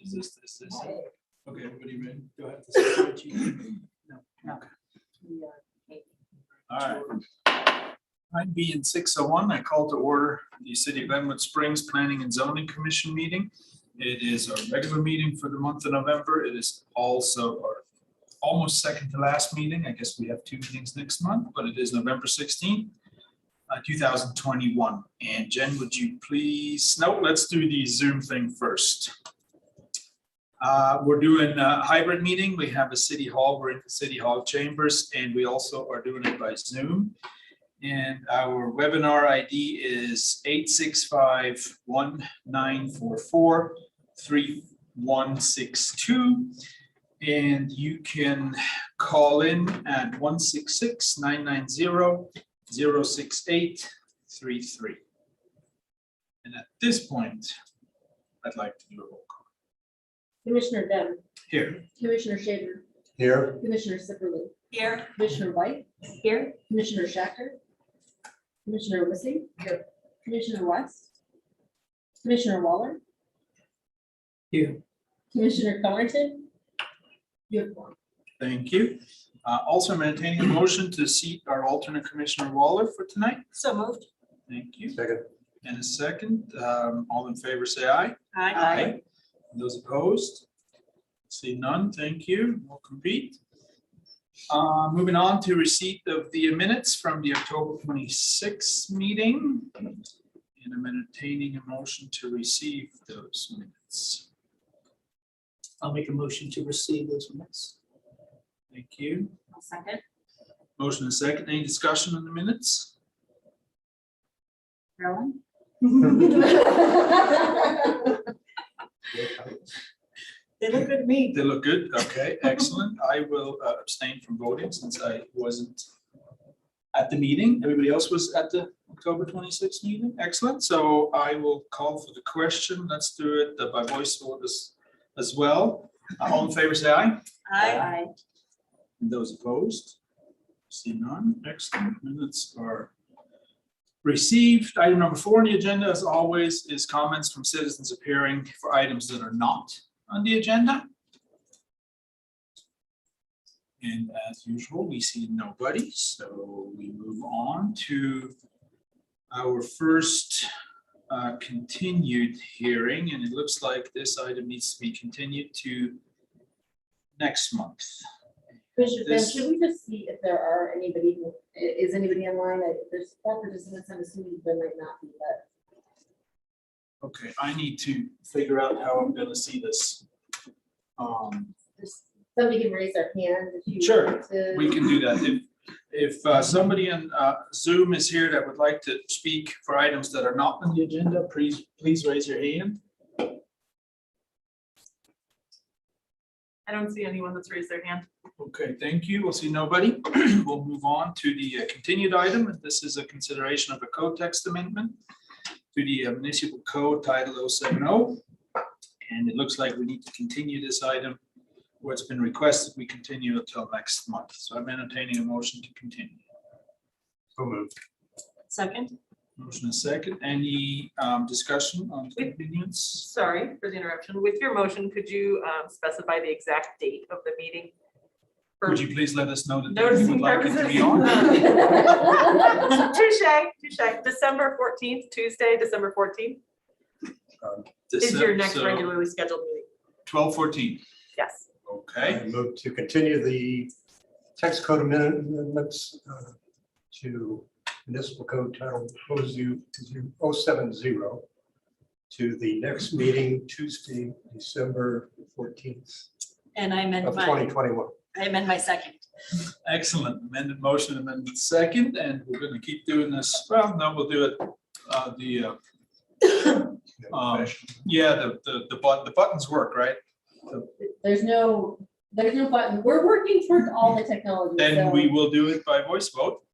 Is this, is this, it? okay, everybody ready? Do I have to say it, Chief? uh, All right. Nine B and six oh one, I call to order the City of Glenwood Springs Planning and Zoning Commission meeting. It is our regular meeting for the month of November. It is also our almost second to last meeting. I guess we have two meetings next month, but it is November sixteenth, uh, two thousand twenty-one. And Jen, would you please, no, let's do the Zoom thing first. Uh, We're doing a hybrid meeting. We have a city hall, we're in the city hall chambers, and we also are doing it by Zoom. And our webinar ID is 865-1944-3162. And you can call in at 166-990-06833. And at this point, I'd like to do a roll call Commissioner Dunn, here. Commissioner Shaver, Here, Commissioner Sipperly, Here. Commissioner White, Here. Commissioner Shacker, Commissioner Wissing. Here. Commissioner West. Commissioner Waller. Here. Commissioner Thornton. Uniform. Thank you. Uh, Also, I'm entertaining a motion to seat our alternate Commissioner Waller for tonight. So moved. Thank you. second, And a second, um, all in favor, say aye. Aye. Those opposed? See none, thank you. We'll compete. Uh, Moving on to receipt of the minutes from the October 26th meeting. And I'm entertaining a motion to receive those minutes. I'll make a motion to receive those minutes. Thank you. I'll Second. Motion and second. Any discussion on the minutes? Carolyn? They look good to me. They look good. Okay, excellent. I will uh, abstain from voting since I wasn't at the meeting. Everybody else was at the October twenty-sixth meeting. Excellent. So I will call for the question. Let's do it uh, by voice vote as, as well. Uh, All in favor, say aye. Aye. And those opposed? See none. Excellent. Minutes are received. Item number four on the agenda, as always, is comments from citizens appearing for items that are not on the agenda. And as usual, we see nobody, so we move on to our first uh, continued hearing, and it looks like this item needs to be continued to next month. Commissioner Dunn, This- should we just see if there are anybody, who- i- is anybody online? I- There's four participants, I'm assuming there might not be, but. Okay, I need to figure out how I'm gonna see this. Um, Just Somebody can raise their hand if you. Sure, want to. we can do that. If, if uh, somebody in uh, Zoom is here that would like to speak for items that are not on the agenda, please, please raise your hand. I don't see anyone that's raised their hand. Okay, thank you. We'll see nobody. We'll move on to the uh, continued item. and This is a consideration of a code text amendment to the uh, municipal code title 070. And it looks like we need to continue this item where it's been requested, we continue until next month. So I'm entertaining a motion to continue. so moved. Second. Motion is second. Any um, discussion on continuance? Sorry for the interruption. With your motion, could you um, specify the exact date of the meeting? For Would you please let us know that you Noticing would like it to purposes. be on? Touche, touche. December fourteenth, Tuesday, December fourteenth is your next regularly scheduled meeting. Twelve fourteen. Yes. Okay, I move to continue the text code amendments uh, to municipal code title 070 to the next meeting Tuesday, December fourteenth And I amend of my, twenty twenty-one. I amend my second. excellent. Amended motion, amended second, and we're gonna keep doing this. Well, no, we'll do it. uh, The, uh, Um, yeah, the, the, the button, the buttons work, right? There's no, there's no button. We're working towards all the technology. Then so- we will do it by voice vote.